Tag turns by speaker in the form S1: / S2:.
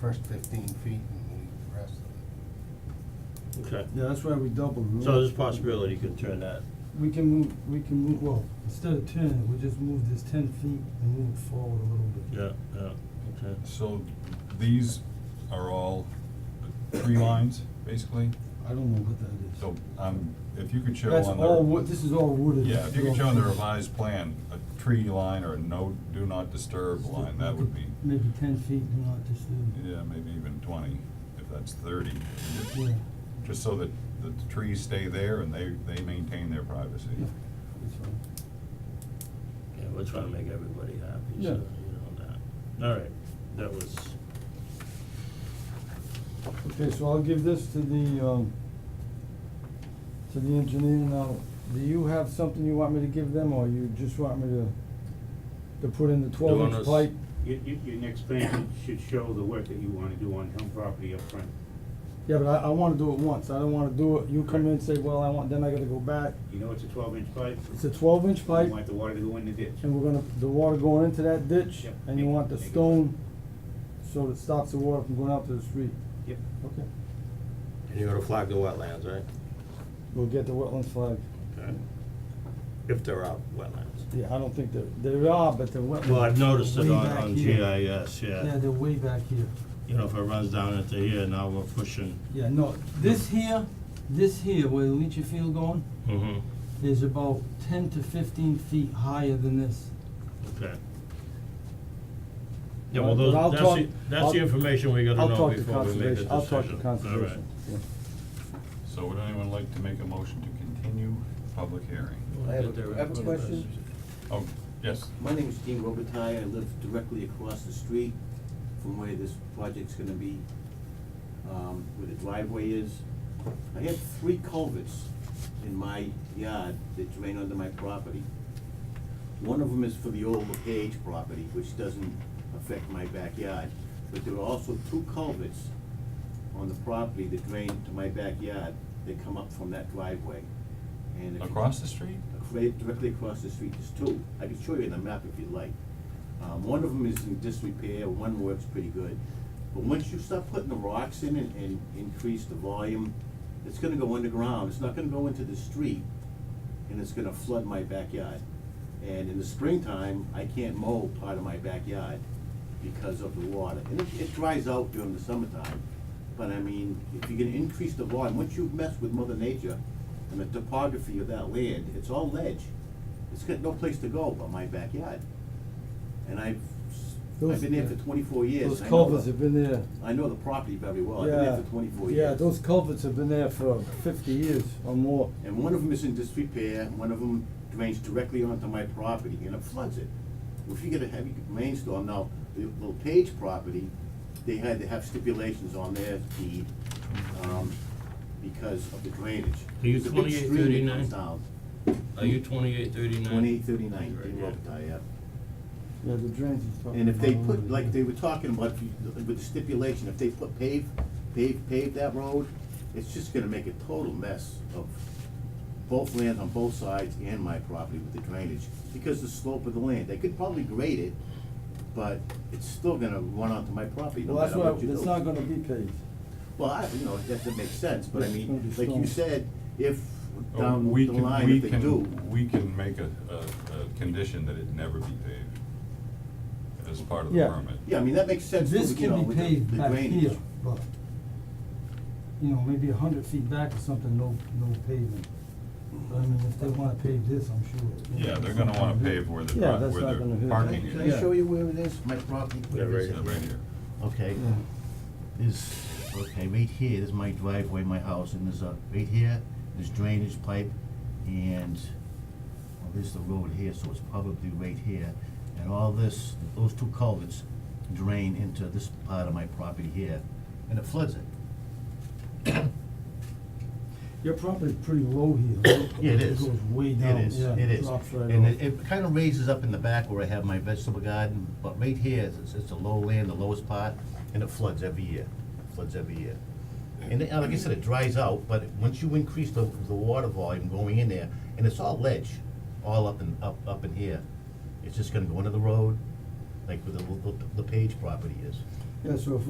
S1: first fifteen feet and leave the rest of
S2: Okay,
S3: Yeah, that's why we doubled. we
S2: so
S3: don't-
S2: there's a possibility you can turn that,
S3: We can move, we can move, well, instead of ten, we just move this ten feet and move it forward a little bit.
S2: yeah, yeah, okay.
S4: So these are all tree lines, basically,
S3: I don't know what that is.
S4: so, um, if you could show
S3: That's
S4: on the.
S3: all wood, this is all wooded.
S4: Yeah,
S3: This
S4: if you
S3: is
S4: could
S3: all
S4: show on the
S3: trees.
S4: revised plan, a tree line or a no, do not disturb line, that would be,
S3: Maybe ten feet, do not disturb.
S4: yeah, maybe even twenty, if that's thirty.
S3: Yeah.
S4: Just so that the trees stay there and they, they maintain their privacy.
S3: Yeah, that's fine.
S2: Yeah, we're trying to make everybody happy, so,
S3: Yeah.
S2: you know, that, alright, that was,
S3: Okay, so I'll give this to the, um, to the engineer now. Do you have something you want me to give them, or you just want me to, to put in the twelve
S2: Doing
S3: inch
S2: us-
S3: pipe?
S5: Your, your, your next plan should show the work that you wanna do on town property up front.
S3: Yeah, but I, I wanna do it once, I don't wanna do it, you come in and say, well, I want, then I gotta go back.
S5: You know it's a twelve inch pipe?
S3: It's a twelve inch pipe,
S5: You want the water to go in the ditch.
S3: and we're gonna, the water going into that ditch,
S5: Yep,
S3: and you
S5: make-
S3: want the
S5: make it-
S3: stone, so that it stops the water from going out to the street.
S5: Yep.
S3: Okay,
S6: And you're gonna flag the wetlands, right?
S3: we'll get the wetlands flag.
S2: okay.
S6: If there are wetlands.
S3: Yeah, I don't think there, there are, but the wetlands.
S2: Well, I've noticed it
S3: Way
S2: on,
S3: back
S2: on
S3: here.
S2: GIS, yeah,
S3: they're way back here.
S2: you know, if it runs down into here, now we're pushing.
S3: Yeah, no, this here, this here, where the leachy field going,
S2: Mm-hmm.
S3: is about ten to fifteen feet higher than this.
S2: Okay. Yeah, well, those,
S3: But I'll
S2: that's
S3: talk-
S2: the, that's
S3: I'll-
S2: the information we gotta
S3: I'll
S2: know
S3: talk to
S2: before we make a
S3: conservation,
S2: decision.
S3: I'll talk to
S2: All right.
S3: conservation, yeah.
S4: So would anyone like to make a motion to continue public hearing?
S2: We'll
S7: I have
S2: get
S7: a-
S2: there
S7: I have a
S2: in-
S7: question.
S4: Oh, yes,
S7: My name is Dean Robitaille, I live directly across the street from where this project's gonna be, um, where the driveway is. I have three culverts in my yard that drain onto my property. One of them is for the old Page property, which doesn't affect my backyard, but there are also two culverts on the property that drain to my backyard that come up from that driveway. And if you-
S4: across the street?
S7: right directly across the street, there's two. I can show you the map if you'd like. Um, one of them is in disrepair, one works pretty good. But once you start putting the rocks in and, and increase the volume, it's gonna go underground, it's not gonna go into the street, and it's gonna flood my backyard. And in the springtime, I can't mow part of my backyard because of the water. And it, it dries out during the summertime, but I mean, if you're gonna increase the volume, once you mess with mother nature and the topography of that land, it's all ledge. It's got no place to go but my backyard. And I've, s-
S3: Those-
S7: I've been there for
S3: yeah.
S7: twenty-four years.
S3: Those
S7: and I know
S3: culverts
S7: the-
S3: have been there,
S7: I know the property very well, I've been
S3: yeah,
S7: there for twenty-four years.
S3: yeah, those culverts have been there for fifty years or more.
S7: And one of them is in disrepair, and one of them drains directly onto my property, and it floods it. If you get a heavy rainstorm, now, the the Page property, they had to have stipulations on their deed, um, because of the drainage.
S2: Are you
S7: It's a big stream that
S2: 2839?
S7: comes down,
S2: Are you twenty-eight thirty-nine?
S7: twenty-eight thirty-nine,
S2: Right,
S7: in
S2: yeah.
S7: Robitaille, yeah.
S3: Yeah, the drains is fucking.
S7: And if they
S3: all
S7: put,
S3: over
S7: like
S3: there.
S7: they were talking about, if you- with the stipulation, if they put pave, pave, pave that road, it's just gonna make a total mess of both lands on both sides and my property with the drainage, because the slope of the land, they could probably grade it, but it's still gonna run onto my property, no
S3: Well, that's
S7: matter
S3: why,
S7: what you do.
S3: that's not gonna be paved.
S7: Well, I, you know, that, that makes sense, but I
S3: It's gonna be
S7: mean, like
S3: stone.
S7: you said, if
S4: Oh,
S7: down
S4: we
S7: the
S4: can-
S7: line,
S4: we
S7: if they
S4: can-
S7: do,
S4: We can make a, a, a condition that it never be paved as part of the
S3: Yeah.
S4: permit.
S7: yeah, I mean, that makes sense,
S3: This
S7: with, you
S3: can
S7: know,
S3: be
S7: with the,
S3: paved
S7: the
S3: back
S7: drainage.
S3: here, but, you know, maybe a hundred feet back or something, no, no paving. But I mean, if they wanna pave this, I'm sure. you know,
S4: Yeah, they're gonna wanna pave where the,
S3: Yeah,
S4: pri-
S3: that's
S4: where
S3: not gonna
S4: the
S3: hurt.
S4: parking
S7: Can
S4: is.
S7: I show you where it is, my property?
S6: Yeah, right
S4: Yeah, Right here.
S7: Okay,
S3: Yeah.
S7: is, okay, right here is my driveway, my house, and there's a, right here, there's drainage pipe, and, well, there's the road here, so it's probably right here. And all this, those two culverts drain into this part of my property here, and it floods it.
S3: Your property's pretty low here.
S7: Yeah, it is.
S3: It goes way down,
S7: It is,
S3: yeah,
S7: it
S3: it
S7: is.
S3: drops right
S7: And
S3: off.
S7: it, it kinda raises up in the back where I have my vegetable garden, but right here, it's, it's a low land, the lowest part, and it floods every year, floods every year. And it- like I said, it dries out, but once you increase the, the water volume going in there, and it's all ledge, all up and, up, up in here, it's just gonna go into the road, like where the, the, the Page property is.
S3: Yeah, so if